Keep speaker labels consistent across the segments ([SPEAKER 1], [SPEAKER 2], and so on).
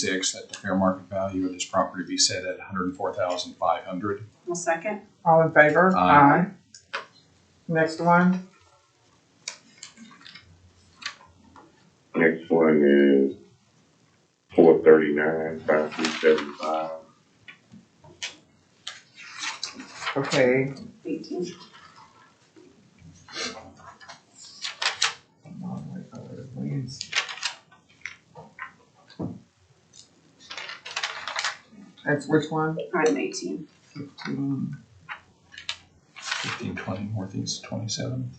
[SPEAKER 1] six, that the fair market value of this property be set at hundred and four thousand five hundred.
[SPEAKER 2] I'll second.
[SPEAKER 3] All in favor?
[SPEAKER 1] Aye.
[SPEAKER 3] Aye. Next one,
[SPEAKER 4] Next one is four thirty-nine, five three seven five.
[SPEAKER 3] okay,
[SPEAKER 2] Eighteen.
[SPEAKER 3] that's which one?
[SPEAKER 2] Item eighteen.
[SPEAKER 3] Mm,
[SPEAKER 1] Fifteen twenty northeast twenty-seven.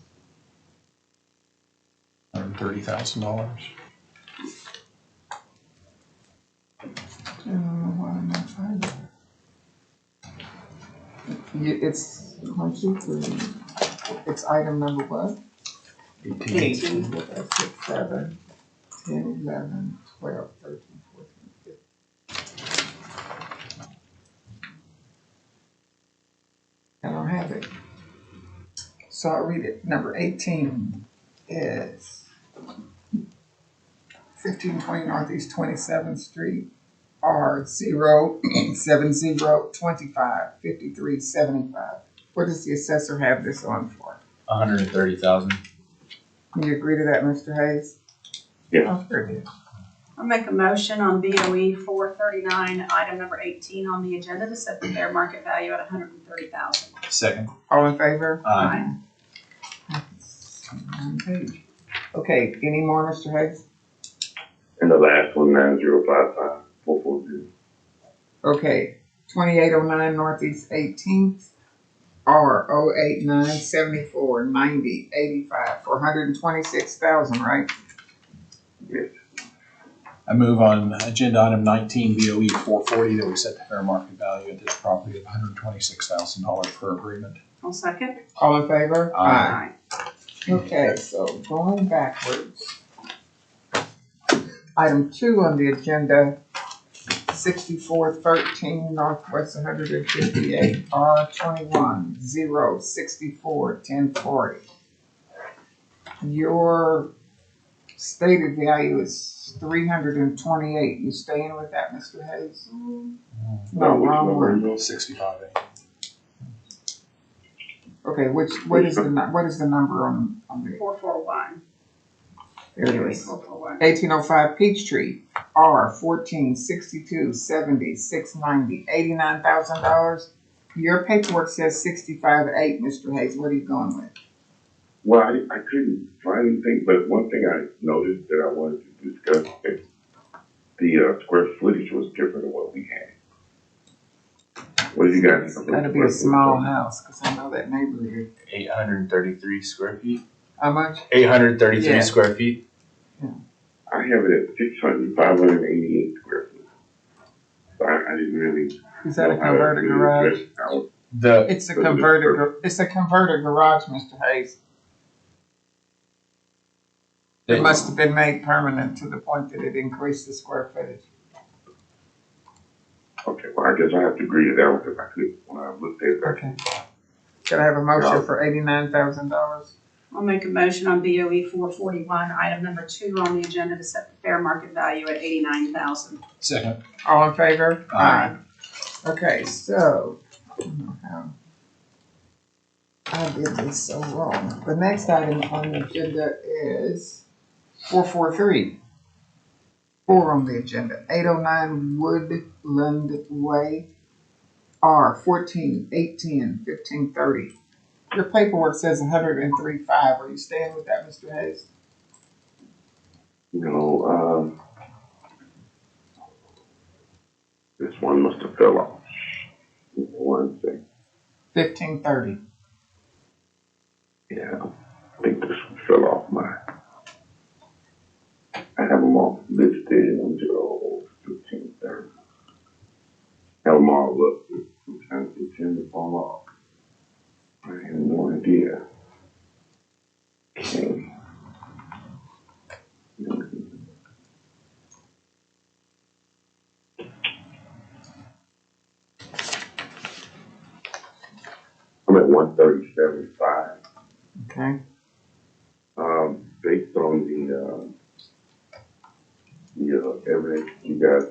[SPEAKER 1] Hundred and thirty thousand dollars.
[SPEAKER 3] I don't know why I'm not finding it. You, it's, one, two, three, it's item number what?
[SPEAKER 1] Eighteen.
[SPEAKER 3] Two, four, five, six, seven, ten, eleven, twelve, thirteen, fourteen, fifteen. I don't have it. So I'll read it. Number eighteen is fifteen twenty Northeast Twenty-seventh Street, R zero seven zero twenty-five fifty-three seventy-five. What does the assessor have this on for?
[SPEAKER 5] hundred and thirty thousand.
[SPEAKER 3] Can you agree to that, Mr. Hayes?
[SPEAKER 4] Yes.
[SPEAKER 3] Oh, sure did.
[SPEAKER 2] I'll make a motion on BOE four thirty-nine, item number eighteen on the agenda to set the fair market value at a hundred and thirty thousand.
[SPEAKER 1] Second.
[SPEAKER 3] All in favor?
[SPEAKER 1] Aye.
[SPEAKER 3] Okay, any more, Mr. Hayes?
[SPEAKER 4] And the last one, nine zero five five, four four zero.
[SPEAKER 3] Okay, twenty-eight oh nine Northeast Eighteenth, R 089749085 for hundred and twenty-six thousand, right?
[SPEAKER 1] I move on agenda item nineteen, BOE four forty, that we set the fair market value at this property at hundred and twenty-six thousand dollars per agreement.
[SPEAKER 2] I'll second.
[SPEAKER 3] All in favor?
[SPEAKER 1] Aye.
[SPEAKER 3] Okay, so going backwards. Item two on the agenda, sixty-four thirteen Northwest one hundred and fifty-eight R twenty-one zero sixty-four ten forty. Your stated value is three hundred and twenty-eight. You staying with that, Mr. Hayes? No, wrong one.
[SPEAKER 1] Sixty-five A.
[SPEAKER 3] Okay, which, what is the, nu- what is the number on, on the,
[SPEAKER 2] Four four one.
[SPEAKER 3] there it is.
[SPEAKER 2] Four four one.
[SPEAKER 3] eighteen oh five Peachtree, R fourteen sixty-two seventy, six ninety, eighty-nine thousand dollars. Your paperwork says sixty-five eight, Mr. Hayes, what are you going with?
[SPEAKER 4] Well, I, I couldn't find anything, but one thing I noticed that I wanted to discuss, is the, uh, square footage was different than what we had. What do you guys? think of the
[SPEAKER 3] That'll be a
[SPEAKER 4] square
[SPEAKER 3] small
[SPEAKER 4] footage?
[SPEAKER 3] house, cause I know that neighborhood.
[SPEAKER 5] Eight hundred and thirty-three square feet.
[SPEAKER 3] How much?
[SPEAKER 5] Eight hundred and thirty-three
[SPEAKER 3] Yeah.
[SPEAKER 5] square feet.
[SPEAKER 4] I have it at six hundred, five hundred and eighty-eight square feet. So I, I didn't really.
[SPEAKER 3] Is that a
[SPEAKER 4] know how to
[SPEAKER 3] converted
[SPEAKER 4] really
[SPEAKER 3] garage?
[SPEAKER 4] address how-
[SPEAKER 5] The
[SPEAKER 3] It's a converted, gar- it's a converted garage, Mr. Hayes. It must have been made permanent to the point that it increased the square footage.
[SPEAKER 4] Okay, well, I guess I have to agree to that one, because I could, when I looked at it, I
[SPEAKER 3] Okay. Could I have a motion for eighty-nine thousand dollars?
[SPEAKER 2] I'll make a motion on BOE four forty-one, item number two on the agenda to set the fair market value at eighty-nine thousand.
[SPEAKER 1] Second.
[SPEAKER 3] All in favor?
[SPEAKER 1] Aye.
[SPEAKER 3] Okay, so. I don't know how I did this so wrong. The next item on the agenda is four four three. Four on the agenda, eight oh nine Woodland Way, R fourteen eighteen fifteen thirty. Your paperwork says hundred and three five. Are you staying with that, Mr. Hayes?
[SPEAKER 4] you know, um, this one must have fell off. One thing,
[SPEAKER 3] Fifteen thirty.
[SPEAKER 4] yeah, I think this one fell off my, I have them all listed until fifteen thirty. Have them all listed, sometimes they tend to fall off. I have no idea. Okay. I'm at one thirty-seven five.
[SPEAKER 3] Okay.
[SPEAKER 4] um, based on the, uh, the uh, evidence you guys